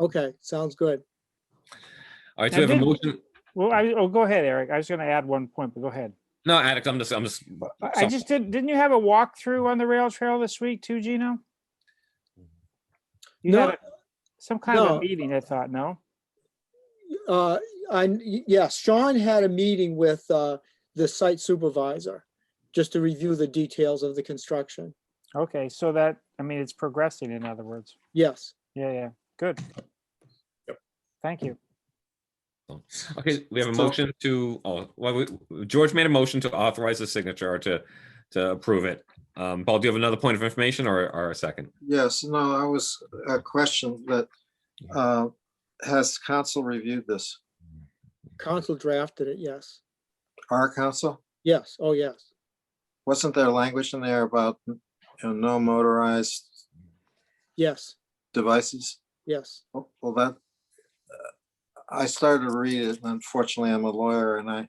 Okay, sounds good. All right, so I we have a did- motion. Well, I, oh, go ahead, Eric. I was gonna add one point, but go ahead. No, Alex, I'm just, I'm just, I- I So- just did, didn't you have a walkthrough on the rail trail this week too, Gino? You had No. a- some kind of No. a meeting, I thought, no? Uh, I, yes, Sean had a meeting with, uh, the site supervisor just to review the details of the construction. Okay, so that, I mean, it's progressing, in other words. Yes, Yeah, yeah, good. Thank you. okay, we have a So- motion to, oh, well, we- George made a motion to authorize the signature or to, to approve it. Um, Paul, do you have another point of information or, or a second? Yes, no, I was a question that, uh, has council reviewed this? council drafted it, yes. Our council? Yes, oh, yes. Wasn't there language in there about, you know, no motorized Yes, devices? yes. Well, Oh, well, that, uh, I started to read it, and unfortunately, I'm a lawyer and I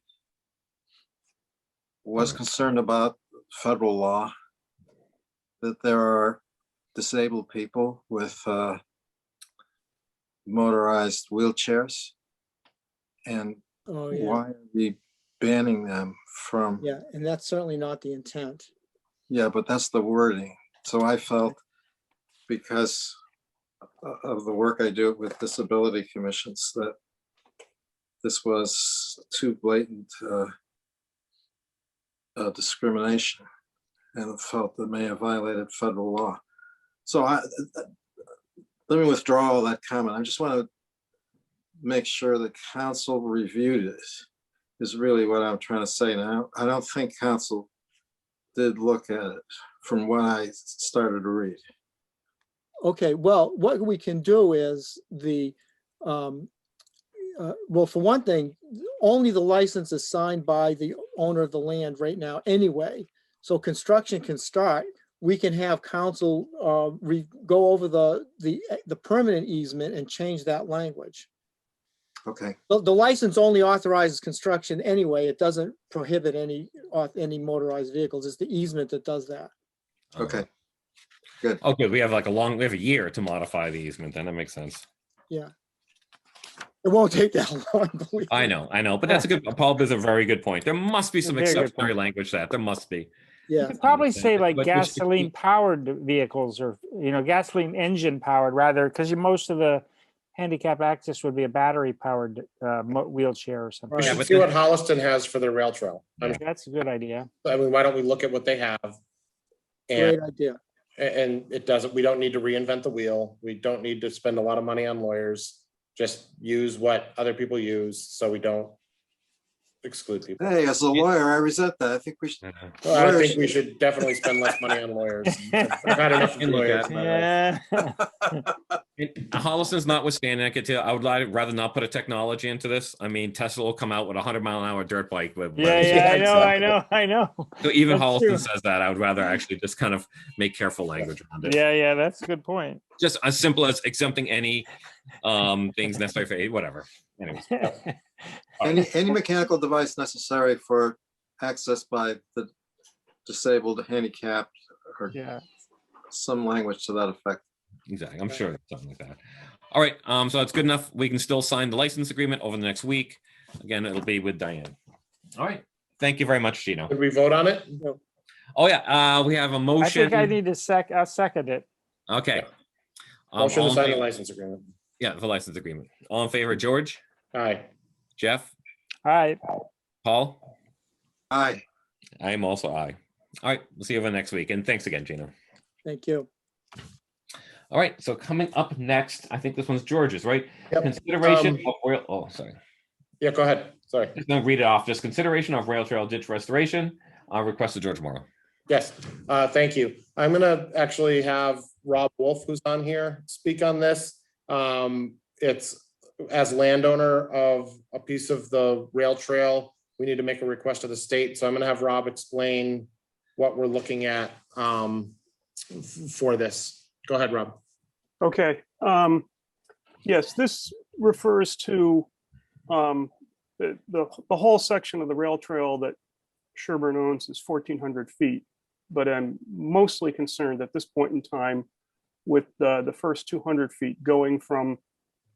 was Mm. concerned about federal law, that there are disabled people with uh, motorized wheelchairs. And Oh, yeah. why are we banning them from? Yeah, and that's certainly not the intent. Yeah, but that's the wording. So I felt because o- of the work I do with disability commissions that this was too blatant uh, uh, discrimination and felt that may have violated federal law. So I, uh, let me withdraw all that comment. I just want to make sure the council reviewed it is really what I'm trying to say now. I don't think council did look at it from when I started to read. Okay, well, what we can do is the, um, uh, well, for one thing, only the license is signed by the owner of the land right now anyway. So construction can start. We can have council, uh, re, go over the, the, the permanent easement and change that language. Okay, The, the license only authorizes construction anyway. It doesn't prohibit any, auth- any motorized vehicles. It's the easement that does that. Uh-huh. okay. Okay, we have like a long, we have a year to modify the easement, then that makes sense. It won't take that long, believe I me. know, I know, but that's a good, Paul is a very good point. There must be some Very good exceptionary point. language to that, there must be. Yeah. You could probably understand say that, like but we should keep- gasoline powered vehicles or, you know, gasoline engine powered rather, because you, most of the handicap access would be a battery powered uh, mo- wheelchair or something. We Yeah, should but see what then- Holliston has for their rail trail. I mean, That's a good idea. I mean, why don't we look at what they have? And, Great idea. and it doesn't, we don't need to reinvent the wheel. We don't need to spend a lot of money on lawyers. Just use what other people use so we don't exclude people. Hey, as a lawyer, I resent that. I think we should, Uh, Well, I think we should definitely spend less money on lawyers. I've had enough of lawyers in my life. Yeah. it- Holliston's notwithstanding, I could tell, I would li- rather not put a technology into this. I mean, Tesla will come out with a hundred mile an hour dirt bike. with- Yeah, yeah, I know, I know, I know. So even That's true. Holliston says that, I would rather actually just kind of make careful language around it. Yeah, yeah, that's a good point. Just as simple as exempting any um things necessary for, whatever. Anyways, any, any mechanical device necessary for access by the disabled, handicapped, or Yeah. some language to that effect. exactly, I'm sure it's something like that. All right, um, so that's good enough. We can still sign the license agreement over the next week. Again, it'll be with Diane. All right, thank you very much, Gino. Did we vote on it? Oh, yeah, uh, we have a I motion. think I need to sec, I'll second it. Okay. Um, Motion all to in sign the favor- license agreement. Yeah, the license agreement. All in favor, George, Aye. Jeff, All right, Paul? Aye. I am also aye. All right, we'll see you over next week. And thanks again, Gino. Thank you. All right, so coming up next, I think this one's George's, right? Yep, Consideration um, of rail, oh, sorry. Yeah, go ahead. Sorry. Just gonna read it off. Just consideration of rail trail ditch restoration, uh, request of George Morrow. Yes, uh, thank you. I'm gonna actually have Rob Wolf, who's on here, speak on this. Um, it's as landowner of a piece of the rail trail, we need to make a request to the state, so I'm gonna have Rob explain what we're looking at, um, f- for this. Go ahead, Rob. Okay, um, yes, this refers to, um, the, the, the whole section of the rail trail that Sherburne owns is fourteen hundred feet. But I'm mostly concerned at this point in time with the, the first two hundred feet going from